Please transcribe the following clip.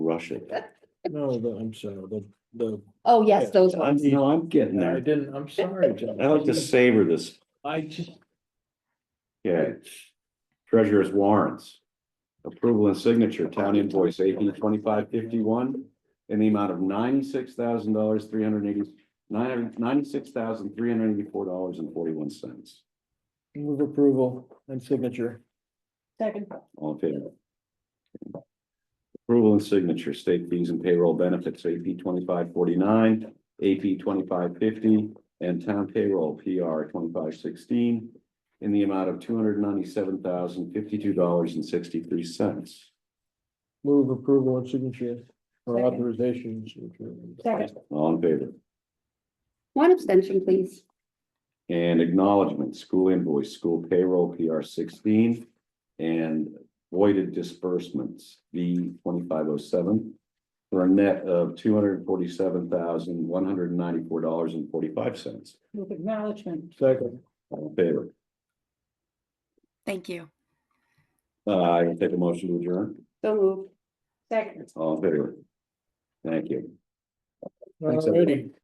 rush it. No, the, I'm sorry, the, the, Oh, yes, Yeah, those I'm, ones. you know, I'm getting I there. didn't, I'm sorry, John. I like to savor this. I just, Okay. Treasurer's warrants. Approval and signature, town invoice eighteen twenty-five fifty-one in the amount of ninety-six thousand dollars, three hundred eighty, nine hundred, ninety-six thousand, three hundred eighty-four dollars and forty-one cents. move approval and signature. Second. All in favor? Approval and signature, state fees and payroll benefits, AP twenty-five forty-nine, AP twenty-five fifty, and town payroll PR twenty-five sixteen in the amount of two hundred ninety-seven thousand, fifty-two dollars and sixty-three cents. Move approval and signature for Second. authorizations. which are- Second. All in favor? One abstention, please. And acknowledgement, school invoice, school payroll, PR sixteen, and voided disbursements, V twenty-five oh seven, for a net of two hundred forty-seven thousand, one hundred ninety-four dollars and forty-five cents. With acknowledgement. Second, All in favor? Thank you. Uh, I will take a motion to adjourn. So moved. Second. All in favor? Thank you. alrighty.